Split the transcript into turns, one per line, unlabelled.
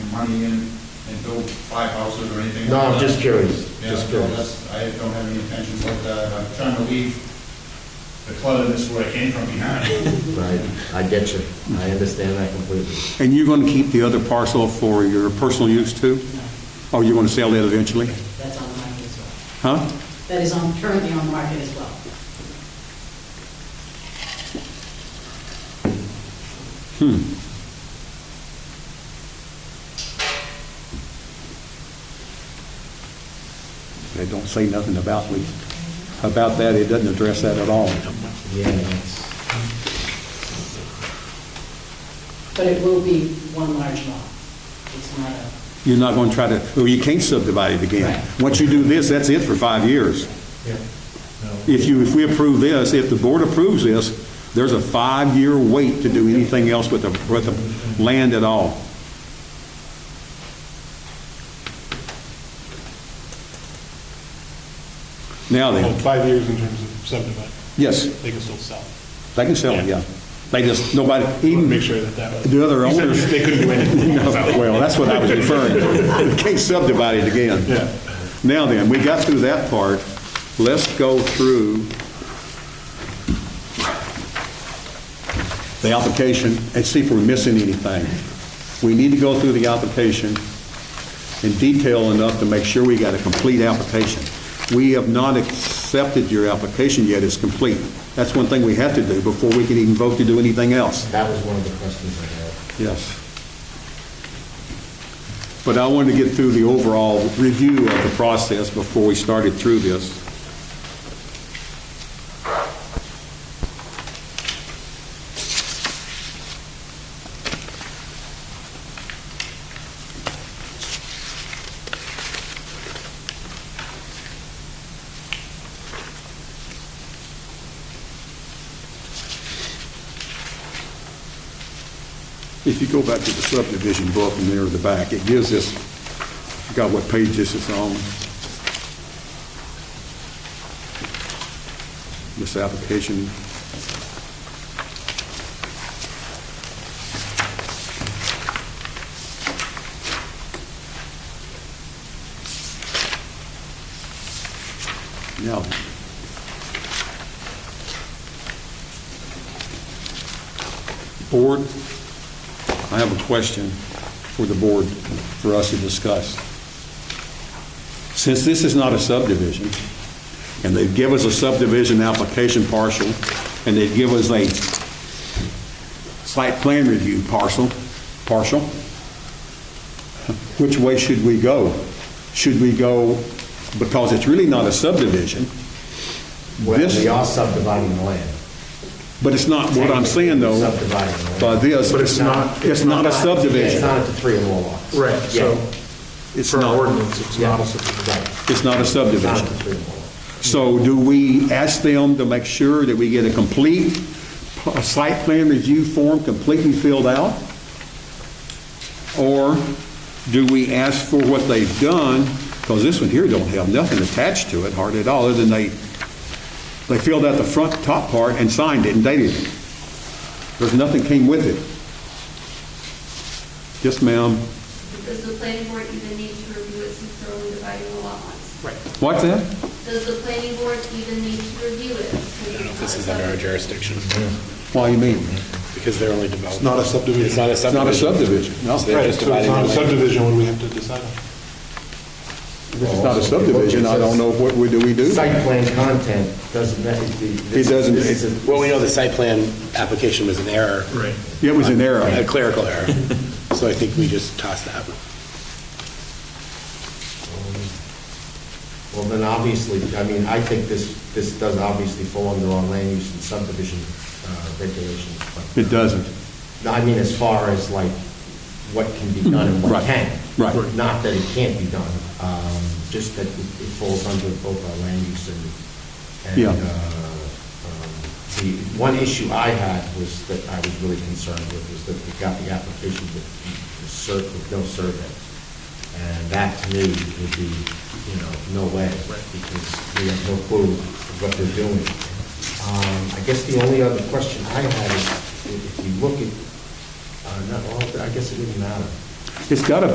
money in and build five houses or anything.
No,
like
I'm
that.
just curious,
Yeah,
just
no,
curious.
that's- I don't have any intentions like that. I'm trying to leave the clutterness where I came from behind.
Right, I get you. I understand that completely.
And you're going to keep the other parcel for your personal use too? Or you want to sell that eventually?
That's on the market as well.
Huh?
That is on, currently on the market as well.
They don't say nothing about we, about that, it doesn't address that at all.
Yeah, that's,
But it will be one large lot. It's not a,
You're not going to try to, well, you can't subdivide it again.
Right.
Once you do this, that's it for five years.
yeah.
If you, if we approve this, if the board approves this, there's a five-year wait to do anything else with the, with the land at all. Now
Well,
then,
five years in terms of subdivision,
yes,
they can still sell.
they can sell it, yeah. They just, nobody, even.
Make sure that that was.
The other
You said
owners-
They couldn't do anything.
No, Well, that's what I was referring to. Can't subdivide it again.
Yeah.
Now then, we got through that part. Let's go through the application and see if we're missing anything. We need to go through the application in detail enough to make sure we got a complete application. We have not accepted your application yet as complete. That's one thing we have to do before we can even vote to do anything else.
That was one of the questions I had.
Yes. But I wanted to get through the overall review of the process before we started through this. If you go back to the subdivision book and there at the back, it gives us, I forgot what page this is on. This application. Now, board, I have a question for the board, for us to discuss. Since this is not a subdivision, and they've given us a subdivision application parcel, and they've given us a site plan review parcel, partial, which way should we go? Should we go, because it's really not a subdivision,
Well,
This-
we are subdividing the land.
but it's not, what I'm saying though,
Subdividing the land.
by this.
But it's not-
It's not a
It's
subdivision.
not at the three and more lots.
Right, so,
Yeah.
It's
for our
not,
ordinance, it's not a
Right.
subdivision.
it's not a
It's not
subdivision.
at the three and more lots.
So do we ask them to make sure that we get a complete p- site plan review form completely filled out? Or do we ask for what they've done, because this one here don't have nothing attached to it hardly at all, other than they, they filled out the front top part and signed it and dated it. There's nothing came with it. Yes, ma'am.
Does the planning board even need to review it since they're only dividing the lot lines?
What's that?
Does the planning board even need to review it? I don't know if
This is under our jurisdiction,
Why you mean?
because they're only developing. It's
not a subdivision.
It's not a
It's not a
subdivision.
subdivision. No,
So
Right,
they're
so
just
it's not
dividing the
a
land.
subdivision, what do we have to decide on?
if it's not a subdivision, I don't know what, we- do we do?
Site plan content doesn't, that is the.
It doesn't-
this is a-
Well, we know the site plan application was an error,
Right.
It was an error.
a clerical error, so I think we just toss that.
Well, then obviously, I mean, I think this, this does obviously fall under our land use and subdivision uh, regulations. but-
It doesn't.
No, I mean, as far as like what can be done and what
Right,
can.
right.
Not that it can't be done, um, just that it it falls under both our land use and,
Yeah.
and, uh, um, the, one issue I had was that I was really concerned with was that we got the application with the sur- with no survey. And that to me would be, you know, no way, because we have no clue what they're doing. Um, I guess the only other question I had is, if you look at, uh, not all, of it, I guess it didn't matter.
It's got to